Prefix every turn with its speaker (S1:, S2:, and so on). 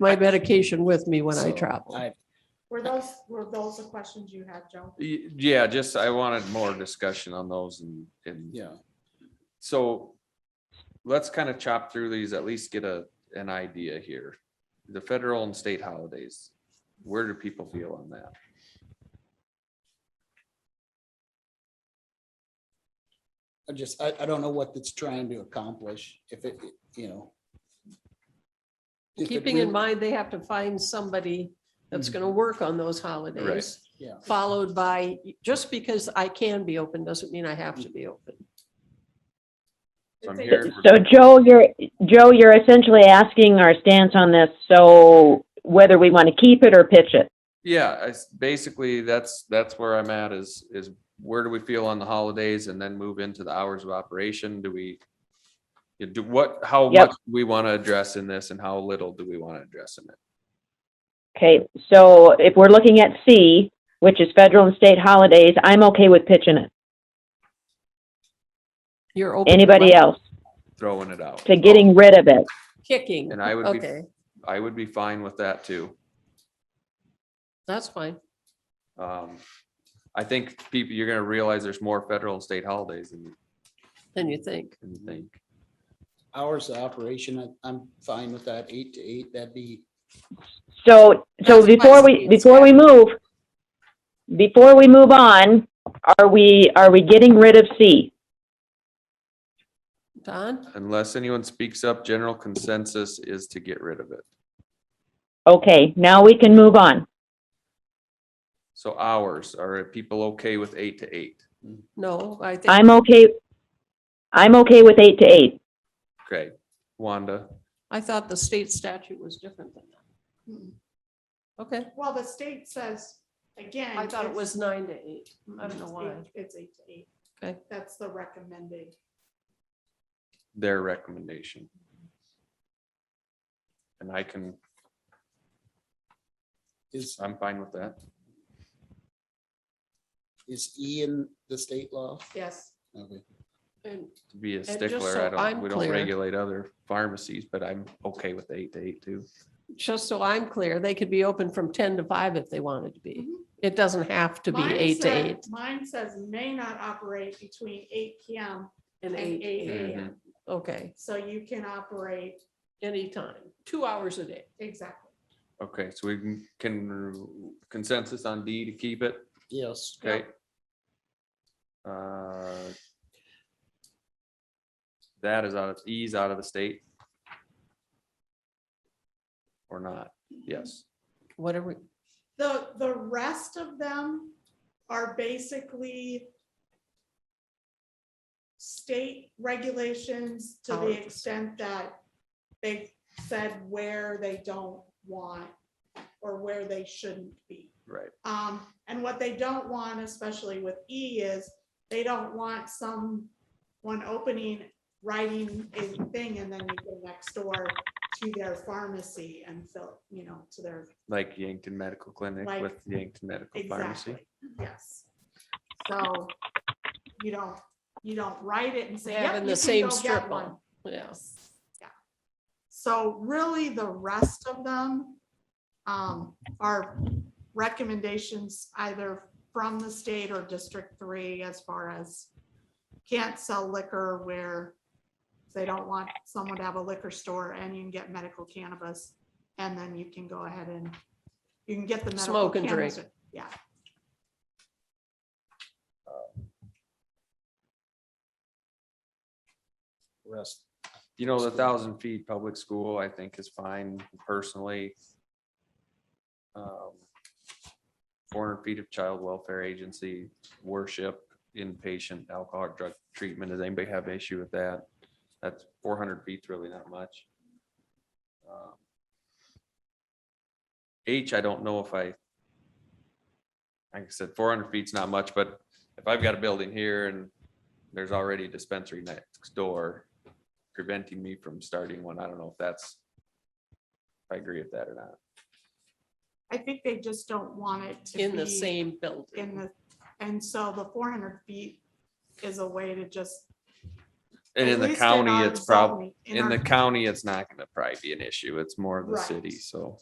S1: my medication with me when I
S2: So,
S1: travel.
S2: I-
S3: Were those, were those the questions you had, Joe?
S4: Y- Yeah, just I wanted more discussion on those and, and
S2: Yeah,
S4: so let's kind of chop through these, at least get a, an idea here. The federal and state holidays, where do people feel on that?
S2: I just, I, I don't know what it's trying to accomplish, if it, you know. If it
S1: Keeping in
S2: really-
S1: mind, they have to find somebody that's
S4: Mm.
S2: Mhm.
S1: gonna work on those holidays.
S2: Yeah.
S1: Followed by, just because I can be open doesn't mean I have to be open.
S4: So I'm
S3: It's a-
S4: here
S5: So Joe, you're, Joe, you're essentially asking our stance on this, so whether we want to keep it or pitch it.
S4: Yeah, I s basically, that's, that's where I'm at is, is where do we feel on the holidays and then move into the hours of operation? Do we? you Do what, how
S5: Yep.
S4: much we want to address in this and how little do we want to address in it?
S5: Okay, so if we're looking at C, which is federal and state holidays, I'm okay with pitching it.
S1: You're open. to
S5: Anybody
S1: my
S5: else
S4: Throwing it out.
S5: to getting rid of it?
S1: Kicking.
S4: And I would be-
S1: Okay,
S4: I would be fine with that too.
S1: that's fine.
S4: Um, I think people, you're gonna realize there's more federal and state holidays than you-
S1: Then you think.
S4: than you think.
S2: Hours of operation, I- I'm fine with that, eight to eight, that'd be,
S5: So, so
S1: That's why
S5: before we,
S1: states
S5: before we move, before we move on, are we, are we getting rid of C?
S1: Don?
S4: Unless anyone speaks up, general consensus is to get rid of it.
S5: Okay, now we can move on.
S4: So hours, are people okay with eight to eight?
S1: No, I think.
S5: I'm okay, I'm okay with eight to eight.
S4: Okay, Wanda,
S1: I thought the state statute was different than
S3: Mm.
S1: that. Okay,
S3: Well, the state says, again.
S1: I thought it
S3: it's-
S1: was nine to eight. I don't know
S3: it's
S1: why.
S3: eight- It's eight to eight.
S1: Okay.
S3: That's the recommended.
S4: their recommendation. And I can,
S2: is,
S4: I'm fine with that.
S2: is E in the state law?
S3: Yes,
S2: Okay.
S1: And
S4: To be a
S1: just
S4: stickler,
S1: so
S4: I
S1: I'm
S4: don't, we don't
S1: clear-
S4: regulate other pharmacies, but I'm okay with eight to eight too.
S1: just so I'm clear, they could be open from ten to five if they wanted to be.
S3: Mhm.
S1: It doesn't have to be
S3: Mine
S1: eight to
S3: said-
S1: eight
S3: Mine says may not operate between eight PM
S1: and
S3: and
S1: eight,
S3: eight
S4: Mhm.
S3: AM.
S1: okay,
S3: So you can operate,
S1: anytime, two hours a day.
S3: exactly.
S4: Okay, so we can- can consensus on D to keep it?
S2: Yes,
S4: Okay. Uh, That is out of, E's out of the state. Or not, yes.
S1: Whatever,
S3: The, the rest of them are basically state regulations to the
S1: Hours.
S3: extent that they said where they don't want or where they shouldn't be.
S4: Right.
S3: Um, and what they don't want, especially with E, is they don't want someone opening, writing a thing and then you go next door to their pharmacy and fill, you know, to their,
S4: Like Yankton Medical Clinic
S3: Like-
S4: with Yankton Medical Pharmacy.
S3: exactly, yes. So you don't, you don't write it and say,
S1: Having
S3: yep,
S1: the
S3: you
S1: same
S3: can go
S1: strip
S3: get
S1: on.
S3: one.
S1: yeah,
S3: Yeah. So really, the rest of them um, are recommendations either from the state or District Three as far as can't sell liquor where they don't want someone to have a liquor store and you can get medical cannabis. And then you can go ahead and you can get the. medical
S1: Smoke and drink.
S3: cannabis- Yeah,
S2: rest,
S4: You know, the
S2: School.
S4: thousand feet public school, I think is fine personally. Um, Four hundred feet of child welfare agency worship, inpatient alcohol drug treatment. Does anybody have issue with that? That's four hundred feet's really not much. Um, H, I don't know if I. Like I said, four hundred feet's not much, but if I've got a building here and there's already a dispensary next door, preventing me from starting one. I don't know if that's. If I agree with that or not.
S3: I think they just don't want it to
S1: in the
S3: be-
S1: same building.
S3: in the, and so the four hundred feet is a way to just
S4: And in
S3: At
S4: the
S3: least in
S4: county,
S3: our
S4: it's prob,
S3: zone,
S4: in
S3: our
S4: the county, it's not gonna probably be an issue. It's more of the
S3: Right.
S4: city, so.